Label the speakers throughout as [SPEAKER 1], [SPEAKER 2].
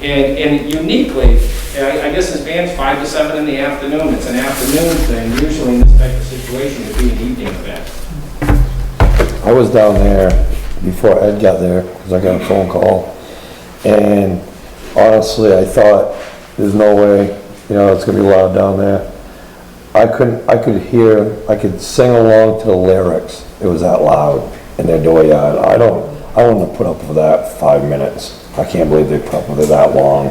[SPEAKER 1] And, and uniquely, and I, I guess this band's five to seven in the afternoon, it's an afternoon thing, usually in this type of situation, it'd be an evening event.
[SPEAKER 2] I was down there before Ed got there, because I got a phone call. And honestly, I thought, there's no way, you know, it's gonna be loud down there. I couldn't, I could hear, I could sing along to the lyrics. It was that loud in their dooryard. I don't, I wouldn't have put up with that five minutes. I can't believe they put up with it that long.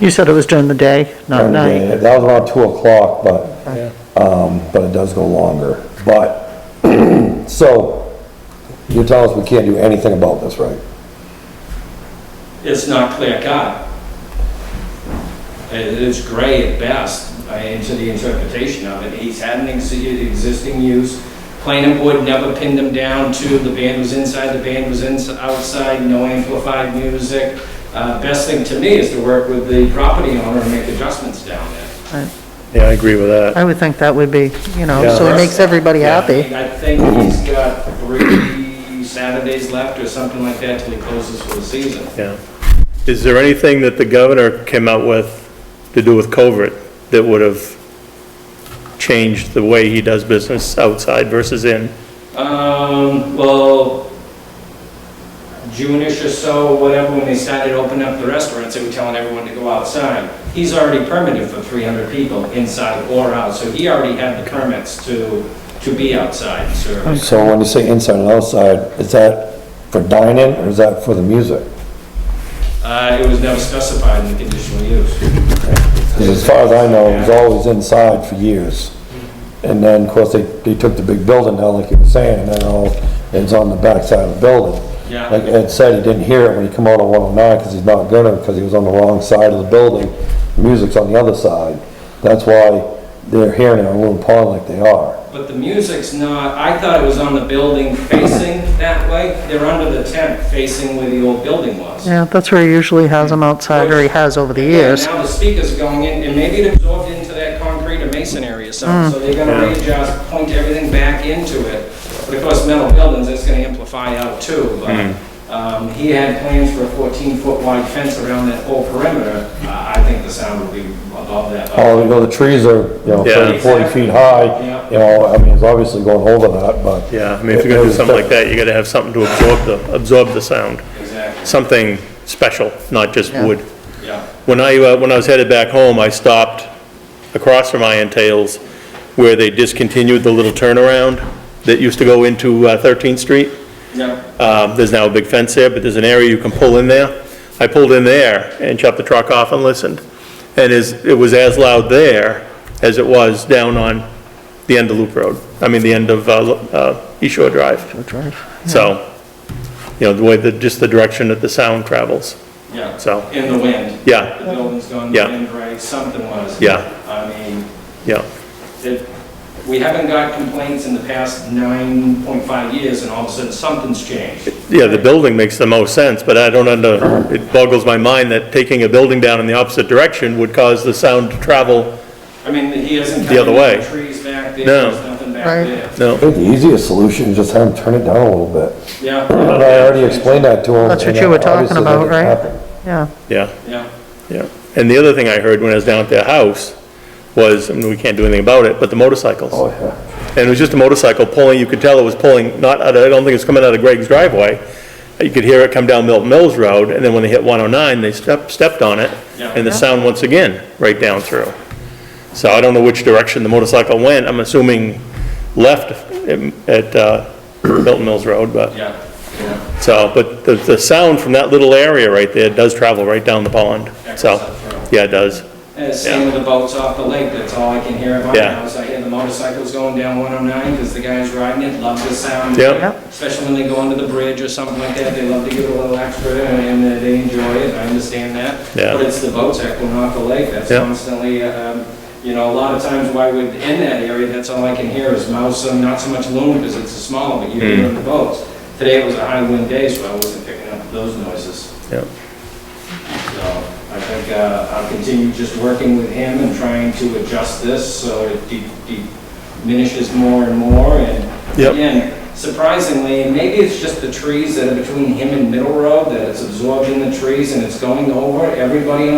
[SPEAKER 3] You said it was during the day, not
[SPEAKER 2] And, uh,
[SPEAKER 3] night.
[SPEAKER 2] That was around two o'clock, but, um, but it does go longer. But, so, you're telling us we can't do anything about this, right?
[SPEAKER 1] It's not clear cut. It is gray at best, I into the interpretation of it. He's had an ex- existing use. Planning board never pinned him down to the band was inside, the band was ins- outside, no amplified music. Uh, Best thing to me is to work with the property owner and make adjustments down there.
[SPEAKER 4] Yeah, I agree with that.
[SPEAKER 3] I would think that would be, you know,
[SPEAKER 4] Yeah.
[SPEAKER 3] so it makes everybody
[SPEAKER 1] Yeah, I
[SPEAKER 3] happy.
[SPEAKER 1] mean, I think he's got three Saturdays left or something like that till he closes for the season.
[SPEAKER 4] Yeah. Is there anything that the governor came out with to do with covert that would have changed the way he does business outside versus in?
[SPEAKER 1] Um, well, June-ish or so, whatever, when they started opening up the restaurants, they were telling everyone to go outside. He's already permitted for 300 people inside or out, so he already had the permits to, to be outside and serve.
[SPEAKER 2] So when you say inside and outside, is that for dining or is that for the music?
[SPEAKER 1] Uh, it was never specified in the conditional use.
[SPEAKER 2] Because as far as I know, it was always inside for years. And then, of course, they, they took the big building down, like you were saying, and then all, it's on the backside of the building.
[SPEAKER 1] Yeah.
[SPEAKER 2] Like Ed said, he didn't hear it when he come out on 109, because he's not gonna, because he was on the wrong side of the building. The Music's on the other side. That's why they're hearing it on Loon Pond like they are.
[SPEAKER 1] But the music's not, I thought it was on the building facing that way. They're under the tent facing where the old building was.
[SPEAKER 3] Yeah, that's where he usually has them outside, or he has over the years.
[SPEAKER 1] Yeah, Now the speakers are going in, and maybe it absorbed into that concrete or masonry or something, so they're gonna readjust, point everything back into it. But of course, metal buildings, it's gonna amplify out too, but, um, he had plans for a fourteen-foot wide fence around that whole perimeter. Uh, I think the sound would be above that. uh,
[SPEAKER 2] Oh, you know, the trees are, you know,
[SPEAKER 4] Yeah.
[SPEAKER 2] 30, 40 feet high. You know, I mean, it's obviously going over that, but.
[SPEAKER 4] Yeah, I mean, if you're gonna do something like that, you gotta have something to absorb the, absorb the sound.
[SPEAKER 1] Exactly,
[SPEAKER 4] Something special, not just wood.
[SPEAKER 1] yeah.
[SPEAKER 4] When I, uh, when I was headed back home, I stopped across from Iron Tales where they discontinued the little turnaround that used to go into uh, 13th Street.
[SPEAKER 1] Yeah,
[SPEAKER 4] Um, There's now a big fence there, but there's an area you can pull in there. I pulled in there and shut the truck off and listened. And is, it was as loud there as it was down on the end of Loop Road. I mean, the end of uh, Lo- uh, East Shore Drive. So, you know, the way, the just the direction that the sound travels.
[SPEAKER 1] yeah.
[SPEAKER 4] So-
[SPEAKER 1] In the wind.
[SPEAKER 4] Yeah.
[SPEAKER 1] The building's going
[SPEAKER 4] Yeah.
[SPEAKER 1] wind, right, something was.
[SPEAKER 4] Yeah.
[SPEAKER 1] I mean,
[SPEAKER 4] Yeah,
[SPEAKER 1] that we haven't got complaints in the past 9.5 years, and all of a sudden, something's changed.
[SPEAKER 4] yeah, the building makes the most sense, but I don't under, it boggles my mind that taking a building down in the opposite direction would cause the sound to travel.
[SPEAKER 1] I mean, he hasn't
[SPEAKER 4] The
[SPEAKER 1] cut
[SPEAKER 4] other
[SPEAKER 1] any
[SPEAKER 4] way.
[SPEAKER 1] trees back there,
[SPEAKER 4] No.
[SPEAKER 1] there's nothing back
[SPEAKER 3] Right.
[SPEAKER 1] there.
[SPEAKER 2] I
[SPEAKER 4] No,
[SPEAKER 2] think the easiest solution is just have them turn it down a little bit.
[SPEAKER 1] Yeah.
[SPEAKER 2] But I already explained that to them.
[SPEAKER 3] That's what
[SPEAKER 2] and
[SPEAKER 3] you were talking
[SPEAKER 2] obviously that
[SPEAKER 3] about,
[SPEAKER 2] didn't
[SPEAKER 3] right?
[SPEAKER 2] happen.
[SPEAKER 3] Yeah,
[SPEAKER 4] yeah.
[SPEAKER 1] Yeah,
[SPEAKER 4] Yeah, and the other thing I heard when I was down at their house was, and we can't do anything about it, but the
[SPEAKER 2] Oh,
[SPEAKER 4] motorcycles.
[SPEAKER 2] yeah.
[SPEAKER 4] And it was just a motorcycle pulling, you could tell it was pulling, not, out of- I don't think it was coming out of Greg's driveway. You could hear it come down Milton Mills Road, and then when they hit 109, they stepped, stepped on it,
[SPEAKER 1] Yeah.
[SPEAKER 4] and the sound once again, right down through. So I don't know which direction the motorcycle went, I'm assuming left at- at uh, Milton Mills Road, but,
[SPEAKER 1] yeah, yeah.
[SPEAKER 4] so, but the, the sound from that little area right there does travel right down the pond,
[SPEAKER 1] That
[SPEAKER 4] so,
[SPEAKER 1] goes up through.
[SPEAKER 4] yeah, it does.
[SPEAKER 1] And it's Uh, same with the boats off the lake, that's all I can hear about
[SPEAKER 4] Yeah.
[SPEAKER 1] now, is I hear the motorcycles going down 109, because the guys riding it love the sound.
[SPEAKER 4] Yep.
[SPEAKER 3] Yep.
[SPEAKER 1] Especially when they go under the bridge or something like that, they love to give it a little extra, and uh, they enjoy it, I understand that.
[SPEAKER 4] Yeah.
[SPEAKER 1] But it's the boats echoing off the lake, that's
[SPEAKER 4] Yep.
[SPEAKER 1] constantly, um, you know, a lot of times why we're in that area, that's all I can hear is mouse, and not so much loon, because it's a small, but you're
[SPEAKER 4] Hmm.
[SPEAKER 1] hearing the boats. Today it was a high wind day, so I wasn't picking up those noises.
[SPEAKER 4] Yeah,
[SPEAKER 1] So I think uh, I'll continue just working with him and trying to adjust this so it de- de- diminishes more and more. And
[SPEAKER 4] Yep.
[SPEAKER 1] again, surprisingly, maybe it's just the trees that are between him and Middle Road that it's absorbed in the trees and it's going over everybody